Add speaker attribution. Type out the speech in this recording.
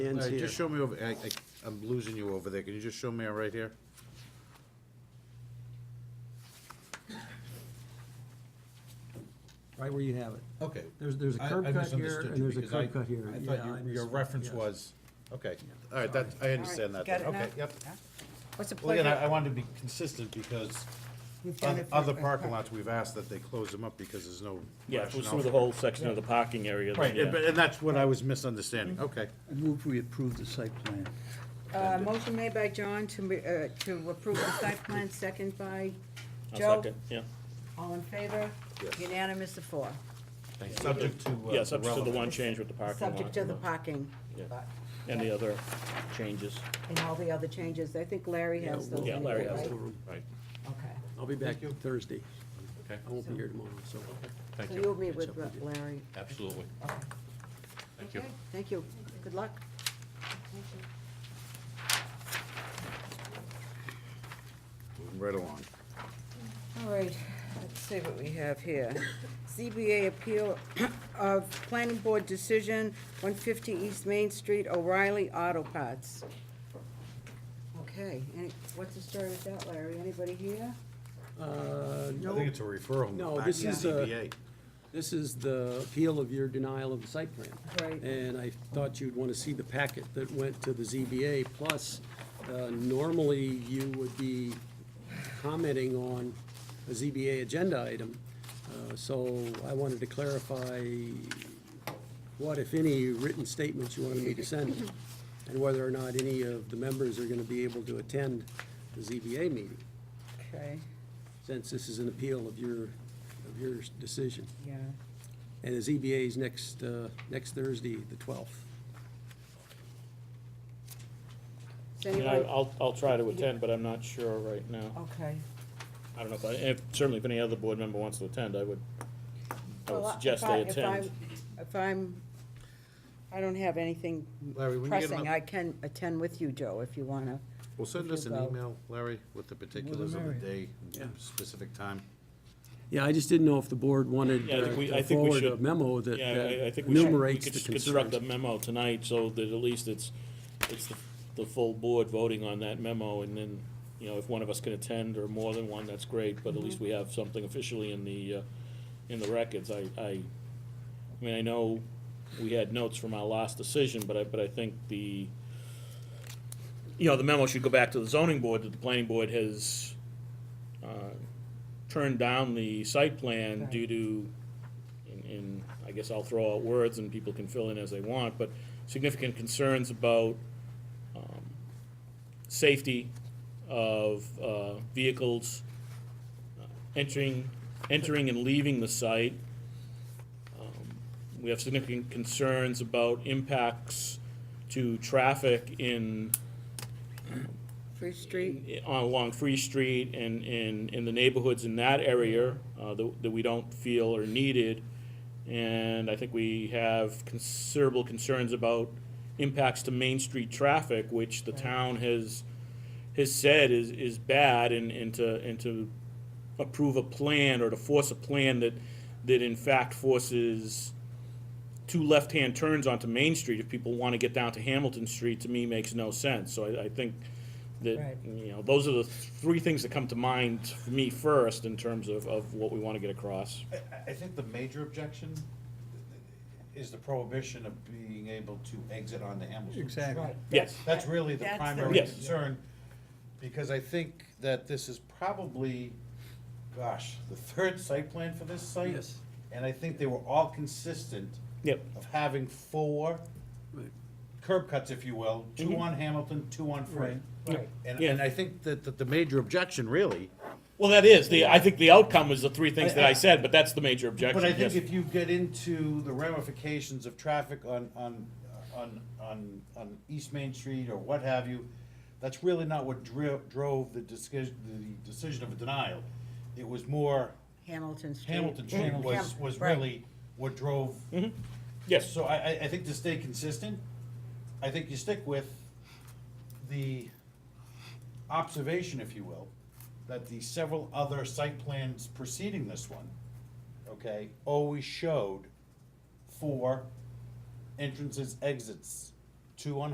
Speaker 1: Ends
Speaker 2: Larry,
Speaker 1: here.
Speaker 2: just show me over, I, I, I'm losing you over there, can you just show me right here?
Speaker 1: Right where you have it.
Speaker 2: Okay.
Speaker 1: There's- there's a
Speaker 2: I-
Speaker 1: curb
Speaker 2: I
Speaker 1: cut here,
Speaker 2: misunderstood
Speaker 1: and
Speaker 2: you
Speaker 1: there's a
Speaker 2: because I-
Speaker 1: curb cut here. Yeah,
Speaker 2: I thought
Speaker 1: I
Speaker 2: your, your
Speaker 1: misunderstood,
Speaker 2: reference
Speaker 1: yes.
Speaker 2: was, okay, all right, that, I understand that,
Speaker 3: All
Speaker 2: then.
Speaker 3: right, you got
Speaker 2: okay,
Speaker 3: it now?
Speaker 2: yep.
Speaker 3: Yeah. What's the
Speaker 2: Well, again, I, I
Speaker 3: pleasure?
Speaker 2: wanted to be consistent because
Speaker 3: We've done
Speaker 2: on
Speaker 3: it for-
Speaker 2: other parking lots, we've asked that they close them up because there's no
Speaker 4: Yeah, if it was
Speaker 2: rationale
Speaker 4: through
Speaker 2: for
Speaker 4: the
Speaker 2: it.
Speaker 4: whole section of the parking area. then
Speaker 2: Right,
Speaker 4: yeah.
Speaker 2: and, but- and that's what I was misunderstanding,
Speaker 3: Mm-hmm.
Speaker 2: okay.
Speaker 5: I move we approve the site plan.
Speaker 3: Uh, motion made by John to, ma- uh, to approve the site plan, second by
Speaker 4: I'll
Speaker 3: Joe.
Speaker 4: second, Yeah,
Speaker 3: All in favor?
Speaker 2: Yes.
Speaker 3: Unanimous of four,
Speaker 2: Subject to. uh,
Speaker 4: yeah, subject to the
Speaker 2: relevant-
Speaker 4: one change with the parking lot.
Speaker 3: subject to
Speaker 4: and
Speaker 3: the
Speaker 4: the-
Speaker 3: parking.
Speaker 4: Yeah.
Speaker 3: lot
Speaker 4: And the other changes.
Speaker 3: And all the other changes, I think Larry has those.
Speaker 4: Yeah, Larry has
Speaker 3: anyway,
Speaker 4: it.
Speaker 3: right?
Speaker 4: Right.
Speaker 3: Okay,
Speaker 1: I'll be back Thursday.
Speaker 6: Okay.
Speaker 1: I won't be here tomorrow, so.
Speaker 6: Thank
Speaker 3: so
Speaker 6: you.
Speaker 3: you'll meet with uh, Larry.
Speaker 6: Absolutely.
Speaker 3: Okay.
Speaker 6: Thank you.
Speaker 3: Okay, Thank you, good luck.
Speaker 2: Moving Right along.
Speaker 3: All right, let's see what we have here. ZBA appeal of planning board decision, one fifty East Main Street, O'Reilly Auto Parts. Okay, any, what's the story with that, Larry? Anybody here?
Speaker 1: Uh,
Speaker 2: I
Speaker 1: no,
Speaker 2: think it's a referral
Speaker 1: No,
Speaker 2: back to
Speaker 1: this
Speaker 2: the
Speaker 1: is, uh,
Speaker 2: ZBA.
Speaker 1: this is the appeal of your denial of the site plan.
Speaker 3: Right.
Speaker 1: And I thought you'd want to see the packet that went to the ZBA, plus, uh, normally you would be commenting on a ZBA agenda item. Uh, So I wanted to clarify what, if any, written statements you wanted me to send, and whether or not any of the members are going to be able to attend the ZBA meeting,
Speaker 3: Okay,
Speaker 1: since this is an appeal of your, of your decision.
Speaker 3: yeah.
Speaker 1: And the ZBA's next, uh, next Thursday, the 12th.
Speaker 3: Does
Speaker 4: I mean, I-
Speaker 3: anybody-
Speaker 4: I'll, I'll try to attend, but I'm not sure right now.
Speaker 3: Okay.
Speaker 4: I don't know if I, if- certainly if any other board member wants to attend, I would, I
Speaker 3: Well,
Speaker 4: would
Speaker 3: I-
Speaker 4: suggest
Speaker 3: if I-
Speaker 4: they
Speaker 3: if
Speaker 4: attend.
Speaker 3: I'm- If I'm, I don't have anything
Speaker 2: Larry, when you get
Speaker 3: pressing,
Speaker 2: up-
Speaker 3: I can attend with you, Joe, if you wanna.
Speaker 2: Well, send
Speaker 3: if
Speaker 2: us
Speaker 3: you
Speaker 2: an
Speaker 3: go.
Speaker 2: email, Larry, with the particulars of the day,
Speaker 1: Yeah.
Speaker 2: specific time.
Speaker 1: Yeah, I just didn't know if the board wanted
Speaker 4: Yeah, I think
Speaker 1: uh,
Speaker 4: we- I
Speaker 1: to
Speaker 4: think we
Speaker 1: forward a
Speaker 4: should-
Speaker 1: memo that
Speaker 4: Yeah, I- I
Speaker 1: that
Speaker 4: think we should-
Speaker 1: enumerates
Speaker 4: We
Speaker 1: the
Speaker 4: could construct a
Speaker 1: concerns.
Speaker 4: memo tonight, so that at least it's, it's the, the full board voting on that memo, and then, you know, if one of us can attend, or more than one, that's great, but at least we have something officially in the, uh, in the records, I, I, I mean, I know we had notes from our last decision, but I, but I think the, you know, the memo should go back to the zoning board, that the planning board has, uh, turned down the site plan due to, and, and I guess I'll throw out words and people can fill in as they want, but significant concerns about, um, safety of, uh, vehicles uh, entering, entering and leaving the site. Um, We have significant concerns about impacts to traffic in
Speaker 3: Free Street?
Speaker 4: i- along Free Street and in, in the neighborhoods in that area uh, that, that we don't feel are needed. And I think we have considerable concerns about impacts to Main Street traffic, which the town has, has said is, is bad and, and to, and to approve a plan or to force a plan that, that in fact forces two left-hand turns onto Main Street if people want to get down to Hamilton Street, to me, makes no sense. So I, I think that,
Speaker 3: Right.
Speaker 4: you know, those are the three things that come to mind for me first in terms of, of what we want to get across.
Speaker 2: I, I- I think the major objection is the prohibition of being able to exit on the Hamilton.
Speaker 5: Exactly.
Speaker 4: Yes.
Speaker 2: That's really the
Speaker 3: That's the-
Speaker 2: primary
Speaker 4: Yes.
Speaker 2: concern, because I think that this is probably, gosh, the third site plan for this site.
Speaker 1: Yes.
Speaker 2: And I think they were all consistent
Speaker 4: Yep.
Speaker 2: of having four
Speaker 1: Right.
Speaker 2: curb cuts, if you will, two on Hamilton, two on Free.
Speaker 3: Right.
Speaker 2: And,
Speaker 4: Yeah.
Speaker 2: and I think that, that the major objection really
Speaker 4: Well, that is, the, I think the outcome was the three things that I said, but that's the major objection,
Speaker 2: But I
Speaker 4: yes.
Speaker 2: think if you get into the ramifications of traffic on, on, on, on, on East Main Street or what have you, that's really not what dri- drove the decision, the decision of a denial. It was more
Speaker 3: Hamilton Street.
Speaker 2: Hamilton Street
Speaker 3: Ham-
Speaker 2: was, was
Speaker 3: right.
Speaker 2: really what drove.
Speaker 4: Yes,
Speaker 2: So I, I, I think to stay consistent, I think you stick with the observation, if you will, that the several other site plans preceding this one, okay, always showed four entrances, exits, two on